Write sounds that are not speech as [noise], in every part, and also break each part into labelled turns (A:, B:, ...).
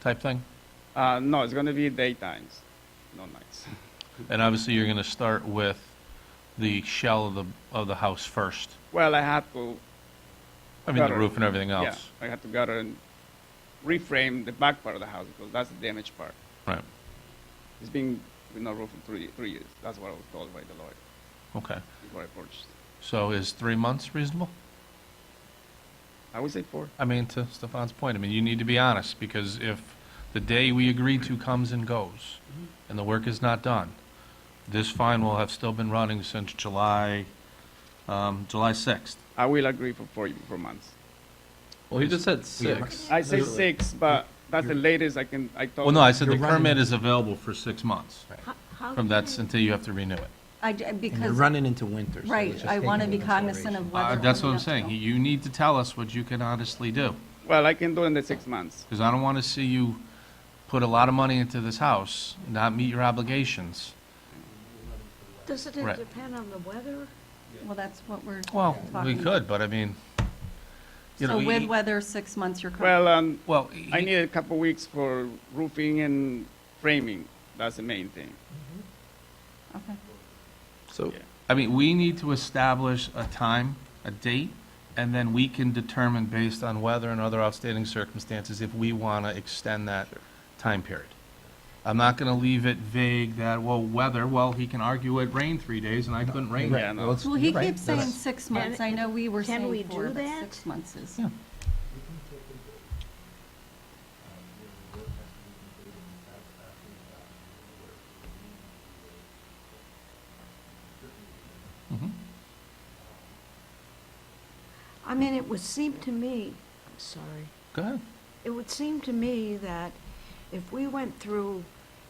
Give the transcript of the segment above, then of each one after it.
A: type thing?
B: Uh, no, it's going to be daytimes, no nights. [laughs]
A: And obviously, you're going to start with the shell of the, of the house first.
B: Well, I had to,
A: I mean, the
B: Gutter.
A: roof and everything
B: yeah,
A: else.
B: I had to gutter and reframe the back part of the house because that's the damaged part.
A: Right,
B: It's been with no roof for three, three years. That's what I was told by the lawyer
A: okay.
B: before I purchased.
A: So is three months reasonable?
B: I would say four.
A: I mean, to Stefan's point, I mean, you need to be honest, because if the day we agreed to comes and goes,
C: Mm-hmm.
A: and the work is not done, this fine will have still been running since July, um, July 6th.
B: I will agree for four, four months.
C: Well, he just said six.
B: I say six, but that's the latest I can, I told.
A: Well, no, I said the
C: You're running-
A: permit is available for six months.
D: How- how
A: From
D: can
A: that, until you have to renew it.
D: I, d- uh,
C: And you're
D: because,
C: running into winter. so it's
D: right,
C: just
D: I want to
C: taking
D: be
C: into
D: cognizant of
C: consideration.
D: whether.
A: Uh,
D: or
A: That's what I'm
D: not
A: saying.
D: to.
A: You need to tell us what you can honestly do,
B: Well, I can do it in the six months.
A: because I don't want to see you put a lot of money into this house, not meet your obligations.
E: Doesn't
A: Right.
E: it depend on the weather?
D: Well, that's what we're
A: Well,
D: talking.
A: we could, but I mean, you know,
D: So with
A: we-
D: weather, six months, you're.
B: Well, um,
A: well. e,
B: I
A: he-
B: need a couple weeks for roofing and framing. That's the main thing.
D: Okay.
C: So,
A: I mean, we need to establish a time, a date, and then we can determine based on weather and other outstanding circumstances if we want to extend that time period. I'm not going to leave it vague that, well, weather, well, he can argue it rained three days and I couldn't rain.
B: Right.
A: it.
B: Yeah, no.
C: well, it's-
D: Well, he
C: you're right,
D: keeps saying
C: that's-
D: six months. I know we were
E: Can we
D: saying four,
E: do
D: but
E: that?
D: six months is.
A: Yeah. Mhm.
E: I mean, it would seem to me, sorry,
A: Go ahead.
E: it would seem to me that if we went through,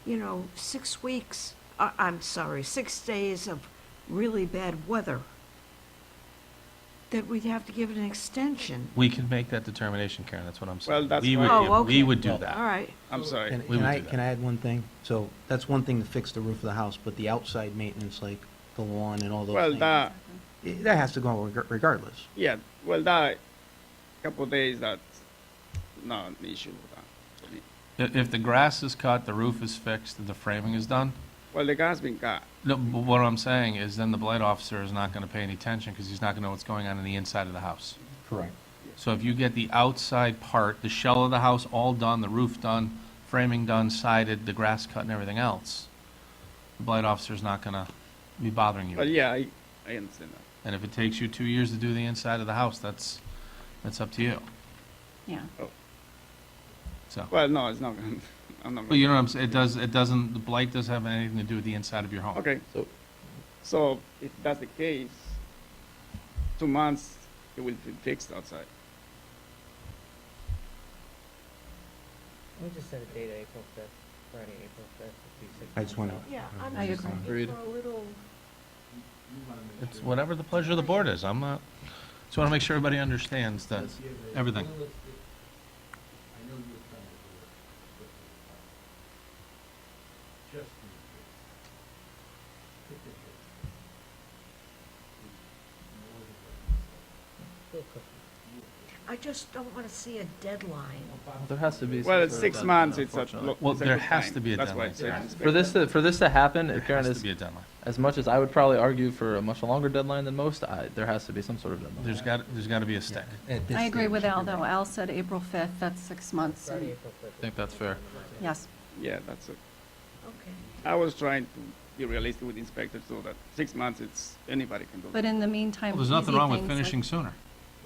E: you know, six weeks, I, I'm sorry, six days of really bad weather, that we'd have to give it an extension.
A: We can make that determination, Karen, that's what I'm saying.
B: Well, that's
A: We would-
E: why- Oh,
A: We
E: okay.
A: would do
C: Well,
A: that.
E: All right,
B: I'm sorry.
C: Can
A: We
C: can
A: would
C: I,
A: do that.
C: can I add one thing? So that's one thing to fix the roof of the house, but the outside maintenance, like the lawn and all those
B: Well,
C: things.
B: that,
C: i- That has to go reg- regardless.
B: yeah, well, that couple days, that's not an issue with that. for me.
A: If, if the grass is cut, the roof is fixed, and the framing is done,
B: Well, the guy's been cut.
A: no, but what I'm saying is then the blight officer is not going to pay any attention because he's not going to know what's going on in the inside of the house.
C: Correct.
A: So if you get the outside part, the shell of the house all done, the roof done, framing done, sided, the grass cut and everything else, the blight officer's not gonna be bothering
B: But
A: you.
B: yeah, I, I understand that.
A: And if it takes you two years to do the inside of the house, that's, that's up to you,
D: Yeah.
A: so.
B: Well, no, it's not going, [laughs] I'm not
A: But you
B: going.
A: know what I'm saying, it does, it doesn't, the blight doesn't have anything to do with the inside of your home.
B: Okay,
C: So,
B: so if that's the case, two months, it will be fixed outside.
F: We just set a date of April fifth, Friday, April fifth, it'd be six
C: I
F: months
C: just wanna-
F: out.
E: yeah,
D: Mm-hmm. I
E: I'm just
D: agree.
E: looking for
C: Agreed.
E: a little,
A: It's whatever the pleasure of the board is, I'm not, just wanna make sure everybody understands that, everything.
E: I just don't want to see a deadline.
G: There has to be. some
B: Well,
G: sort
B: it's
G: of
B: six
G: deadline,
B: months, it's a.
G: unfortunately.
B: lo-
A: Well,
B: it's a
A: there
B: good
A: has
B: time.
A: to be a
B: That's why I
A: deadline.
B: said
A: Yeah.
B: it's
G: For this, to- for this to happen,
A: There
G: if Karen
A: has to
G: is,
A: be a deadline.
G: as much as I would probably argue for a much longer deadline than most, I, there has to be some sort of deadline.
A: There's got, there's gotta be a stick.
D: I agree with Al, though. Al said April 5th, that's six months. and-
F: Friday, April fifth.
G: I think that's fair.
D: Yes.
B: Yeah, that's it.
E: Okay.
B: I was trying to be realistic with inspectors so that six months, it's, anybody can do
D: But
B: it.
D: in the meantime.
A: Well, There's nothing
D: easy
A: wrong with
D: things like-
A: finishing sooner,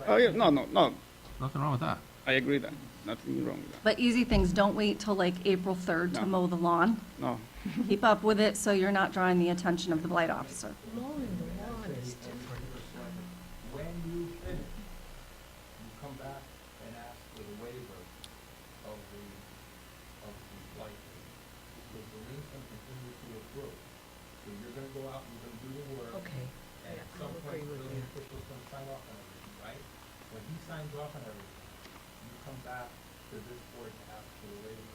B: Oh, yeah, no, no, no,
A: nothing wrong with that.
B: I agree that, nothing wrong with that,
D: But easy things, don't wait till like April 3rd to
B: No.
D: mow
A: [laughs]
D: the lawn.
B: no.
D: Keep up with it so you're not drawing the attention of the blight officer.
E: Mowing the lawn is different.
H: When you finish, you come back and ask for the waiver of the, of the light. Because the lien can continue to accrue. So you're gonna go out, and you're gonna do the work.
E: Okay,
H: And at
E: I
H: some point, the
E: agree with
H: building
E: that.
H: official's gonna sign off on everything, right? When he signs off on everything, you come back to this board to ask for the waiver.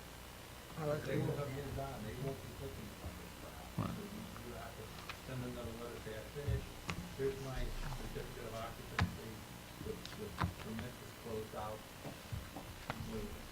F: I'll agree
H: They will
F: with
H: have
F: that.
H: moved on, they won't be looking for this perhaps. So you you have to send another letter, say, I finished, here's my certificate of occupancy, the, the permit is closed out. Move it.